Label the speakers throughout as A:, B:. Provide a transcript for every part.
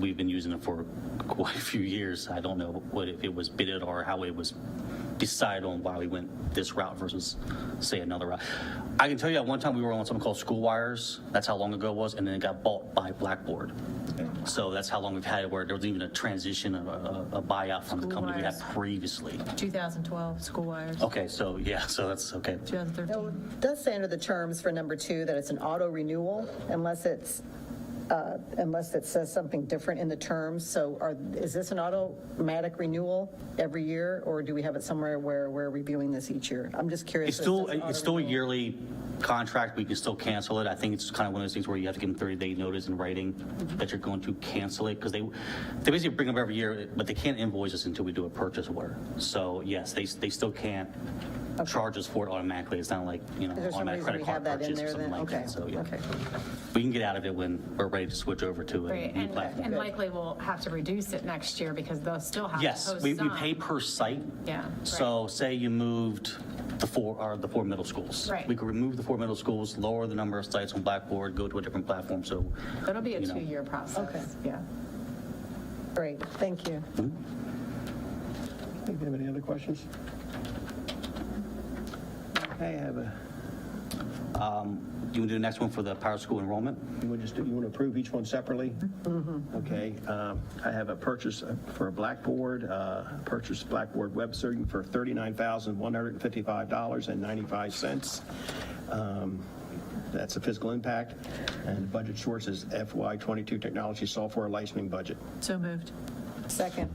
A: We've been using it for quite a few years. I don't know what, if it was bidded or how it was decided on why we went this route versus, say, another route. I can tell you at one time we were on something called School Wires. That's how long ago it was, and then it got bought by Blackboard. So that's how long we've had it, where there was even a transition, a, a a buyout from the
B: School
A: company we had
B: Wires.
A: previously.
B: 2012, school wires,
A: Okay, so, yeah, so that's, okay.
B: 2013.
C: It Does say under the terms for number two that it's an auto renewal unless it's, uh, unless it says something different in the terms. So are, is this an automatic renewal every year or do we have it somewhere where we're reviewing this each year? I'm just curious.
A: It's
C: if
A: still,
C: says auto
A: it's still a
C: renewal.
A: yearly contract, we can still cancel it. I think it's kind of one of those things where you have to give them 30-day notice in writing
C: Mm-hmm.
A: that you're going to cancel it, because they, they basically bring them every year, but they can't invoice us until we do a purchase order. So yes, they, they still can't charge us for it automatically, it's not like, you know,
C: Is there some
A: automatic
C: reason
A: credit
C: we
A: card
C: have that in
A: purchase or
C: there
A: something
C: then?
A: like
C: Okay,
A: that, so yeah.
C: okay.
A: We can get out of it when we're ready to switch over to a
D: Right,
A: new
D: and,
A: platform.
D: and likely we'll have to reduce it next year because they'll still have to
A: Yes,
D: post some.
A: we, we pay per site.
D: Yeah,
A: So say you moved the four, or the four middle schools.
D: Right.
A: We could remove the four middle schools, lower the number of sites on Blackboard, go to a different platform, so.
D: It'll be a
A: you know.
D: two-year process.
C: Okay.
D: Yeah.
C: Great, thank you.
E: Do you have any other questions? Okay, I have a,
A: You want to do the next one for the power school enrollment?
E: you want to just, you want to approve each one separately? Okay, um, I have a purchase uh, for a Blackboard, uh, purchase Blackboard web serving for $39,155.95. Um, That's a fiscal impact, and the budget source is FY22 technology software licensing budget.
B: So moved.
C: Second.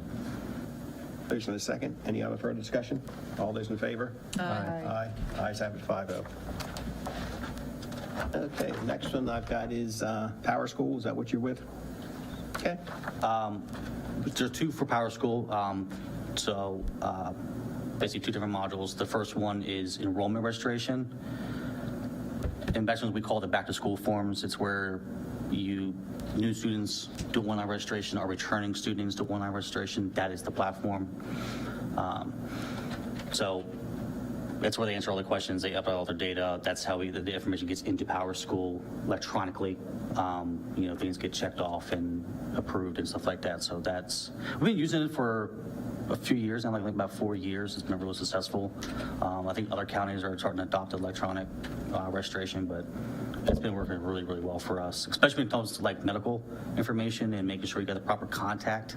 E: Motion and a second. Any other further discussion? All those in favor? Aye. Aye. Ayes have it, 5-0. Okay, next one I've got is uh, Power School. Is that what you're with? Okay.
A: There are two for Power School, um, so uh, basically two different modules. The first one is enrollment registration. In Bachelor's, we call it the back-to-school forms. It's where you, new students do online registration or returning students do online registration. That is the platform. Um, So that's where they answer all the questions, they upload all their data, that's how we- the the information gets into Power School electronically. Um, You know, things get checked off and approved and stuff like that, so that's, we've been using it for a few years, now, like like about four years, it's been really successful. Um, I think other counties are starting to adopt electronic uh, registration, but it's been working really, really well for us, especially when it comes to like medical information and making sure you got the proper contact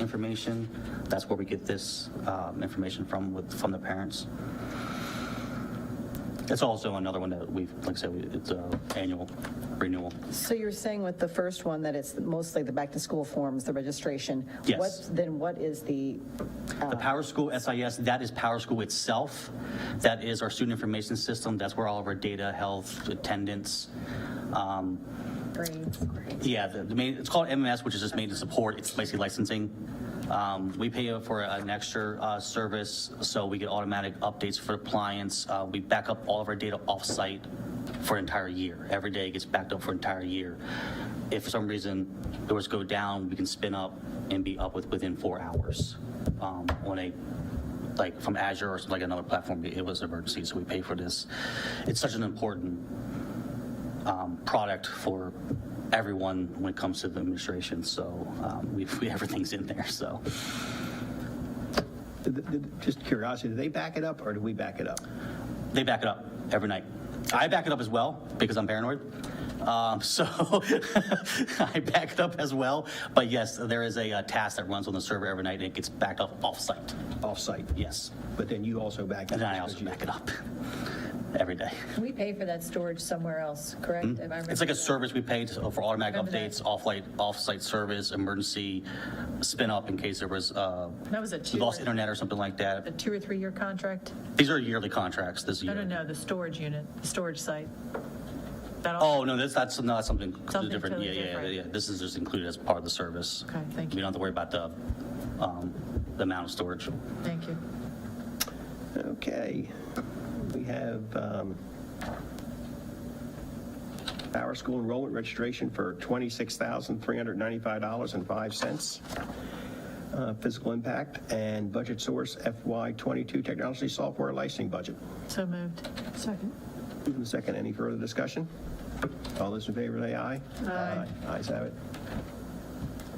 A: information. That's where we get this um, information from, with from the parents. It's also another one that we've, like I said, we- it's a annual renewal.
C: So you're saying with the first one that it's mostly the back-to-school forms, the registration?
A: Yes.
C: What- Then what is the,
A: The Power School SIS, that is Power School itself. That is our student information system. That's where all of our data, health, attendance. um, Yeah, the the main, it's called MMS, which is just maintenance support. It's basically licensing. Um, We pay for an extra uh, service, so we get automatic updates for clients. Uh, We back up all of our data off-site for an entire year. Every day gets backed up for an entire year. If for some reason doors go down, we can spin up and be up with, within four hours um, on a, like, from Azure or like another platform. It was emergency, so we pay for this. It's such an important um, product for everyone when it comes to the administration. So um, we, we everything's in there. So
E: Did- did- Just curiosity, do they back it up or do we back it up?
A: they back it up every night. I back it up as well because I'm paranoid. Um, so I back it up as well. But yes, there is a, uh task that runs on the server every night and it gets backed up off-site.
E: Off-site?
A: Yes.
E: But then you also back it up?
A: And then I also back it up every day.
F: We pay for that storage somewhere else, correct? If I remember
A: Mm-hmm. It's like a
F: that.
A: service we pay to- for automatic
F: Remember that.
A: updates, off-site, off-site service, emergency spin-up in case there was uh,
B: That was a two,
A: lost
B: a
A: internet or something like that.
B: two or three-year contract?
A: These are yearly contracts this year.
B: No, no, no, the storage unit, the storage site. That all,
A: Oh, no, that's, that's, no, that's something
B: Something
A: completely different.
B: totally
A: Yeah, yeah,
B: different.
A: yeah, yeah. This is just included as part of the service.
B: Okay, thank
A: We
B: you.
A: don't have to worry about the, um, the amount of storage.
B: thank you.
E: Okay, we have um, Power School enrollment registration for $26,395.05. uh, Physical impact and budget source FY22 technology software licensing budget.
B: So moved. Second.
E: Move in Second, any further discussion? All those in favor, say aye. Aye. Ayes have it.